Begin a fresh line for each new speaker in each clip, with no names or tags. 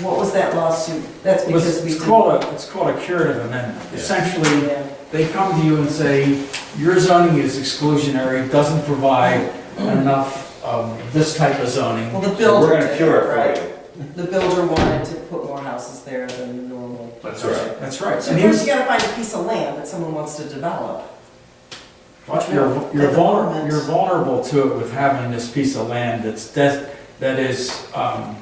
What was that lawsuit? That's
It was-
because we
It's
didn't-
called a, it's called a curative amendment.
Yeah.
Essentially,
Yeah.
they come to you and say, your zoning is exclusionary, doesn't provide enough of this type of zoning.
Well, the
So
builder
We're gonna
did
cure
it,
it
right?
for you.
The builder wanted to put more houses there than normal.
That's all right.
That's right.
So
And he was-
first you gotta find a piece of land that someone wants to develop.
Watch, you're, you're
At the
vulnerable,
moment.
you're vulnerable to it with having this piece of land that's des, that is, um,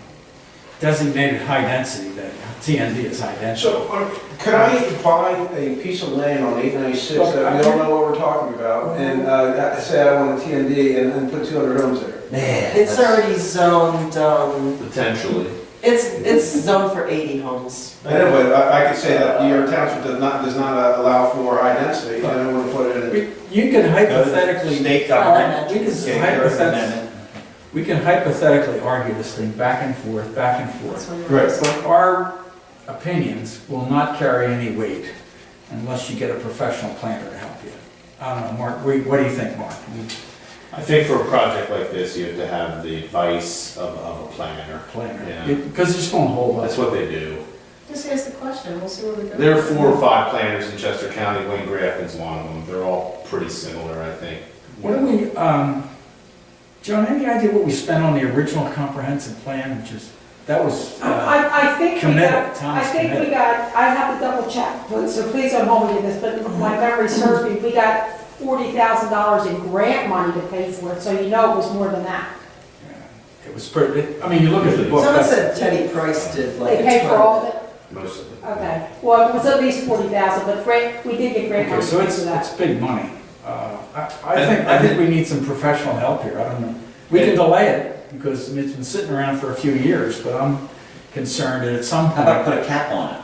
designated high density, that TND is high density.
So, uh, could I buy a piece of land on eight ninety-six that we all know what we're talking about, and, uh, say I want a TND and then put two hundred homes there?
Man.
It's already zoned, um,
Potentially.
it's, it's zoned for eighty homes.
I know, but I, I could say that your township does not, does not uh, allow for high density, and I want to put it in.
We- You can
Go to the
hypothetically,
State government.
we can
get a curative
hypothetically,
amendment.
we can hypothetically argue this thing back and forth, back and forth.
That's where you're-
Right.
But our opinions will not carry any weight unless you get a professional planner to help you. I don't know, Mark, we- what do you think, Mark?
I think for a project like this, you have to have the advice of, of a planner.
Planner,
Yeah.
because it's gonna hold up.
That's what they do.
Just ask the question, we'll see where we go.
There are four or five planners in Chester County, Wayne Grafton's one of them. They're all pretty similar, I think.
What do we, um, Joan, any idea what we spent on the original comprehensive plan, which is, that was, uh,
I, I think we
committed,
got, I
Thomas
think we
committed.
got, I have to double check, so please don't hold me to this, but my memory serves me, we got forty thousand dollars in grant money to pay for it, so you know it was more than that.
It was pretty, I mean, you look at the book.
Someone
that's-
said Teddy Price did like.
They paid for all of it,
Most of them.
okay, well, it was at least forty thousand, but grant, we did get grant
Okay,
money to
so
pay
it's,
for
it's
that.
big money. Uh, I, I
And-
think, I
and-
think we need some professional help here, I don't know. We can
And-
delay it, because it's been sitting around for a few years, but I'm concerned that at some
How about
point,
put a cap on it?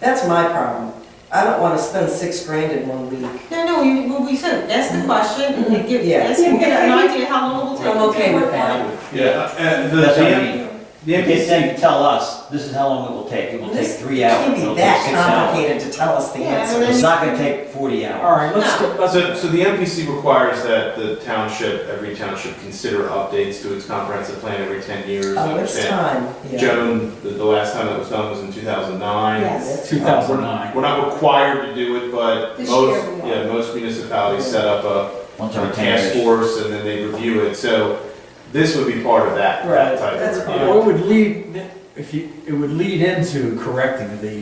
That's my problem. I don't wanna spend six grand in one week.
No, no, you, well, we said, ask
Mm-hmm.
the question and give,
Yeah.
ask him, get an idea how long it will take.
I'm okay with that.
Yeah, and the,
That's what I
the-
mean. You can say, tell us, this is how long it will take. It will take
This
three hours.
It
It'll
can't be
take
that
six hours.
complicated to tell us the
Yeah, I
answer.
mean-
It's not gonna take forty
all
hours.
right, let's, go- let's,
so, so the MPC requires that the township, every township consider updates to its comprehensive plan every ten years. I
Oh, it's
understand.
time, yeah.
Joan, the, the last time that was done was in two thousand nine.
Yes.
2009.
We're not required to do it, but
This
most,
year we are.
yeah, most municipalities set up a
Once
a
every ten
task
years.
force and then they review it, so this would be part of that,
Right,
that type
that's
of
fine.
review.
Well, it would lead, if you, it would lead into correcting the,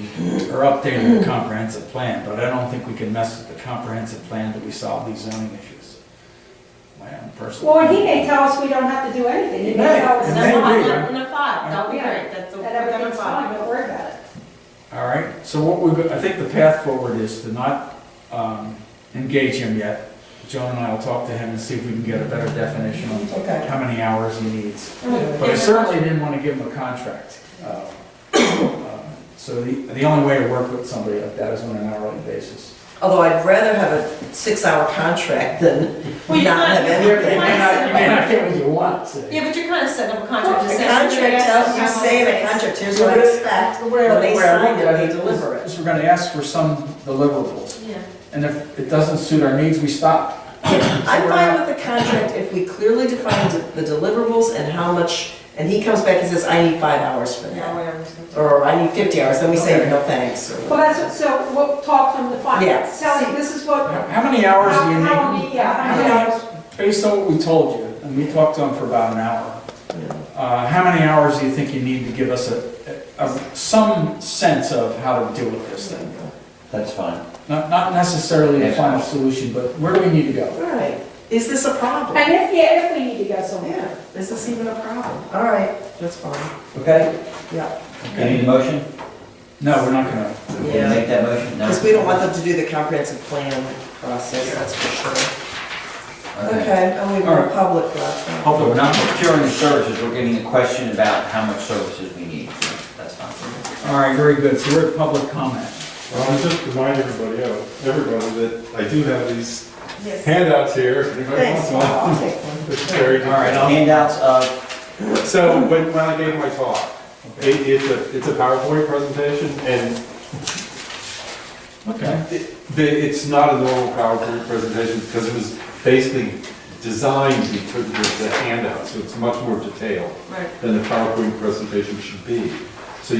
or updating the comprehensive plan, but I don't think we can mess with the comprehensive plan that we solve these zoning issues. My own personal.
Well, and he may tell us we don't have to do anything, he may
Right.
tell us
And
that
then-
That's fine, I'm gonna five, that'll be
Yeah.
great, that's a,
that
I'm gonna
everything's
five.
fine, don't worry about it.
All right, so what we, I think the path forward is to not um, engage him yet. Joan and I will talk to him and see if we can get a better definition on
Okay.
how many hours he needs.
And we'll
But I
figure it
certainly
out.
didn't want to give him a contract. Uh, uh, So the, the only way to work with somebody like that is on an hourly basis.
Although I'd rather have a six-hour contract than
Well, you're
not
not-
have any.
You may not, you may not get what you want. so-
Yeah, but you're kinda setting up a contract.
The
just asking them
contract
to ask
tells
them
you,
how
say in
long it
a
takes.
contract, here's what I expect, when they sign it, they deliver it.
Is we're going to ask for some deliverables,
Yeah.
and if it doesn't suit our needs, we stop.
I'm fine with the contract if we clearly define the deliverables and how much, and he comes back and says, I need five hours for
Yeah,
that,
whatever. it's gonna take.
or I need fifty hours, then we say, no thanks, or.
Well, that's, what- so we'll talk from the
Yeah.
finance, Sally, this is what, how,
How how many hours do you need?
how, we- uh, yeah, how many hours?
Based on what we told you, and we talked to him for about an hour, uh, how many hours do you think you need to give us a, a- some sense of how to deal with this thing?
That's fine.
Not, not necessarily the final solution, but where do we need to go?
All right, is this a problem?
And if, yeah, if we need to go somewhere.
Yeah, is this even a problem? All right, that's fine,
Okay?
yeah.
You need a motion?
No, we're not gonna,
Can you
Yeah.
Make that motion? No.
Because we don't want them to do the comprehensive plan process, that's for sure.
Okay.
Okay, only
All
one
right.
public left. huh?
Hopefully, we're not procuring the services, we're getting a question about how much services we need. That's fine.
all right, very good, so we're at public comment.
Well, I'll just remind everybody, else- everybody, that I do have these
Yes.
handouts here, if anybody
Thanks,
wants
I'll
one.
take one.
It's very
All right, I'll-
Handouts of,
So when, when I gave my talk, it, it's a, it's a PowerPoint presentation, and
okay.
it- the- it's not a normal PowerPoint presentation, because it was basically designed to be put with the handout, so it's much more detailed
Right.
than the PowerPoint presentation should be.